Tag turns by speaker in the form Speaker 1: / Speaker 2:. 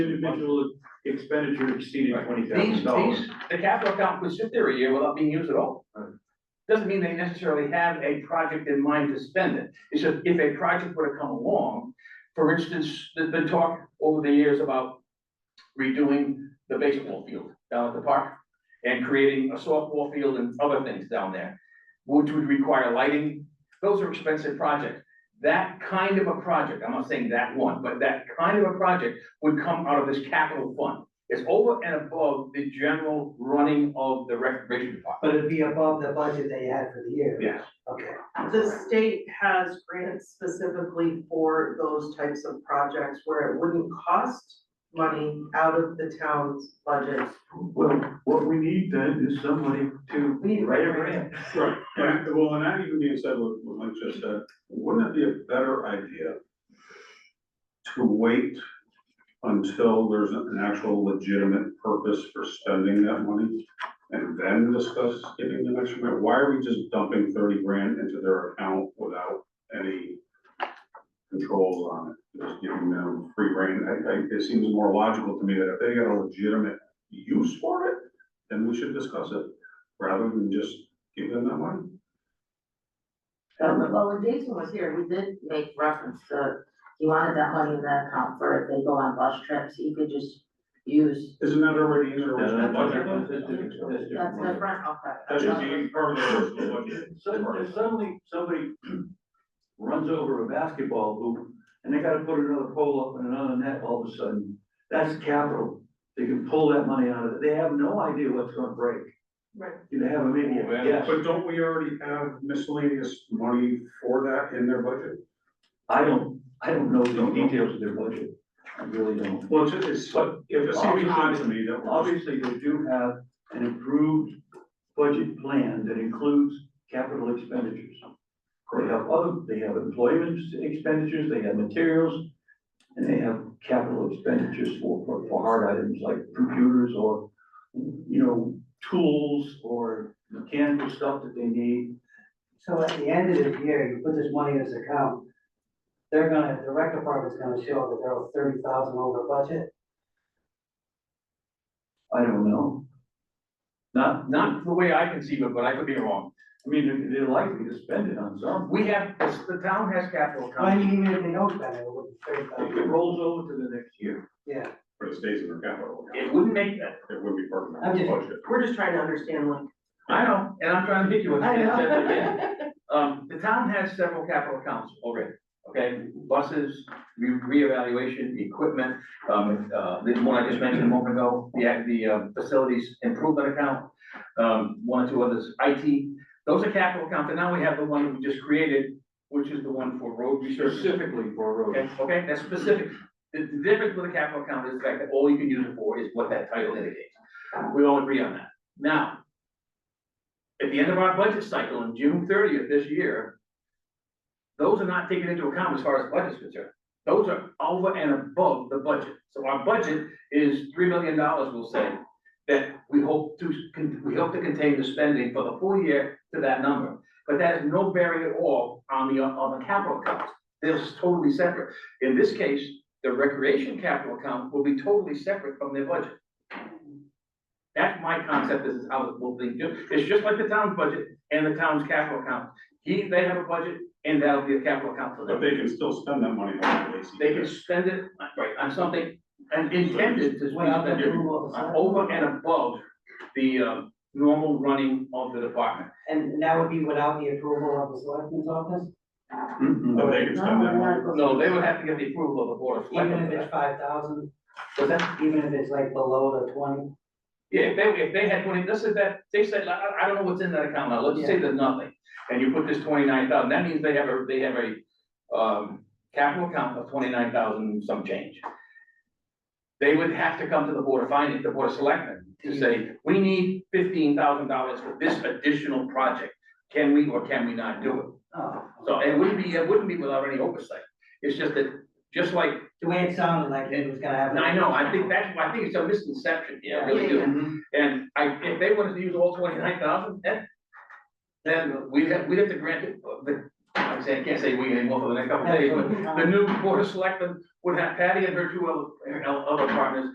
Speaker 1: individual expenditure exceeding twenty
Speaker 2: These,
Speaker 1: thousand dollars.
Speaker 2: these, the capital account could sit there a year without being used at all. Doesn't mean they necessarily have a project in mind to spend it. It's just if a project were to come along, for instance, there's been talk over the years about redoing the baseball field down at the park and creating a softball field and other things down there, which would require lighting. Those are expensive projects. That kind of a project, I'm not saying that one, but that kind of a project would come out of this capital fund. It's over and above the general running of the recreation department.
Speaker 3: But it'd be above the budget they had for the year.
Speaker 2: Yes.
Speaker 3: Okay,
Speaker 4: The state has grants specifically for those types of projects where it wouldn't cost money out of the town's budget.
Speaker 1: Well, what we need then is somebody to
Speaker 4: We need
Speaker 1: write a grant.
Speaker 5: Right, and, well, and that even being said, what what Mike just said, wouldn't it be a better idea to wait until there's an actual legitimate purpose for spending that money? And then discuss giving them extra money? Why are we just dumping thirty grand into their account without any controls on it? Just giving them free rein. I, I, it seems more logical to me that if they got a legitimate use for it, then we should discuss it, rather than just give them that money?
Speaker 6: Well, when Jason was here, we did make reference to, he wanted that money in that account for if they go on bus trips, he could just use.
Speaker 5: Isn't that already in their original budget?
Speaker 6: That's
Speaker 1: Suddenly,
Speaker 6: different, okay.
Speaker 5: That should be part of their original budget.
Speaker 1: if suddenly somebody runs over a basketball hoop and they gotta put another pole up and another net all of a sudden. That's capital. They can pull that money out of it. They have no idea what's gonna break.
Speaker 4: Right.
Speaker 1: You have a media, yes.
Speaker 5: But don't we already have miscellaneous money for that in their budget?
Speaker 1: I don't, I don't know the details of their budget. I really don't.
Speaker 5: Well, it's, it's,
Speaker 1: But
Speaker 5: it
Speaker 1: if
Speaker 5: seems odd to
Speaker 1: obviously,
Speaker 5: me that we're just
Speaker 1: obviously they do have an improved budget plan that includes capital expenditures. They have other, they have employment expenditures, they have materials, and they have capital expenditures for, for, for hard items like computers or, you know, tools or mechanical stuff that they need.
Speaker 3: so at the end of the year, you put this money in this account, they're gonna, the rec department's gonna show that they're thirty thousand over budget.
Speaker 1: I don't know. Not,
Speaker 2: Not the way I conceive it, but I could be wrong.
Speaker 1: I mean, they're- they're likely to spend it on something.
Speaker 2: We have, the town has capital
Speaker 3: I
Speaker 2: accounts.
Speaker 3: mean, even if they don't spend it, it would be thirty
Speaker 1: It
Speaker 3: thousand,
Speaker 1: rolls over to the next year.
Speaker 3: yeah.
Speaker 5: for the states in their capital.
Speaker 2: It wouldn't make that.
Speaker 5: It would be part of
Speaker 3: I'm
Speaker 5: their
Speaker 3: just-
Speaker 5: budget.
Speaker 4: We're just trying to understand like.
Speaker 2: I know, and I'm trying to hit you with
Speaker 4: I know.
Speaker 2: that. Um, the town has several capital accounts already, okay? Buses, re- reevaluation, equipment, um, uh, the one I just mentioned a moment ago, the, act- the uh, facilities improvement account, um, one or two others, IT. Those are capital accounts, and now we have the one that we just created, which is the one for road research.
Speaker 1: Specifically for roads.
Speaker 2: Okay, okay, that's specific. The the difference with a capital account is the fact that all you can use it for is what that title indicates. We all agree on that. Now, at the end of our budget cycle on June thirtieth this year, those are not taken into account as far as budget's concerned. Those are over and above the budget. So our budget is three million dollars, we'll say, that we hope to, con- we hope to contain the spending for the full year to that number. But that is no bearing at all on the, on the capital accounts. They're totally separate. In this case, the recreation capital account will be totally separate from their budget. That's my concept, this is how it will be, ju- it's just like the town's budget and the town's capital account. He, they have a budget and that'll be a capital account for
Speaker 5: But
Speaker 2: them.
Speaker 5: they can still spend that money on the AC.
Speaker 2: They can spend it, right, on something and intended to
Speaker 3: Without
Speaker 2: spend
Speaker 3: the
Speaker 2: it
Speaker 3: approval of the select-
Speaker 2: over and above the, uh, normal running of the department.
Speaker 3: And that would be without the approval of the selectmen's office,
Speaker 5: But they can spend that money.
Speaker 2: No, they would have to get the approval of the board of
Speaker 3: even if
Speaker 2: selectmen.
Speaker 3: it's five thousand,
Speaker 2: Was that
Speaker 3: even if it's like below the twenty.
Speaker 2: Yeah, if they, if they had twenty, let's say that, they said, like, I, I don't know what's in that account now, let's say there's nothing. And you put this twenty-nine thousand, that means they have a, they have a, um, capital account of twenty-nine thousand some change. They would have to come to the Board of Finance, the Board of Selectmen, to say, we need fifteen thousand dollars for this additional project. Can we or can we not do it?
Speaker 3: Oh,
Speaker 2: So it wouldn't be, it wouldn't be without any oversight. It's just that, just like,
Speaker 3: the way it sounded like it was gonna happen.
Speaker 2: I know, I think that's, I think it's a misconception, yeah, I really
Speaker 4: Yeah,
Speaker 2: do.
Speaker 4: yeah.
Speaker 2: And I, if they wanted to use all twenty-nine thousand, then, then we'd have, we'd have to grant it, uh, the I'm saying, I can't say we anymore for the next couple of days, but
Speaker 3: Absolutely.
Speaker 2: the new board of selectmen would have Patty and her two other, her other partners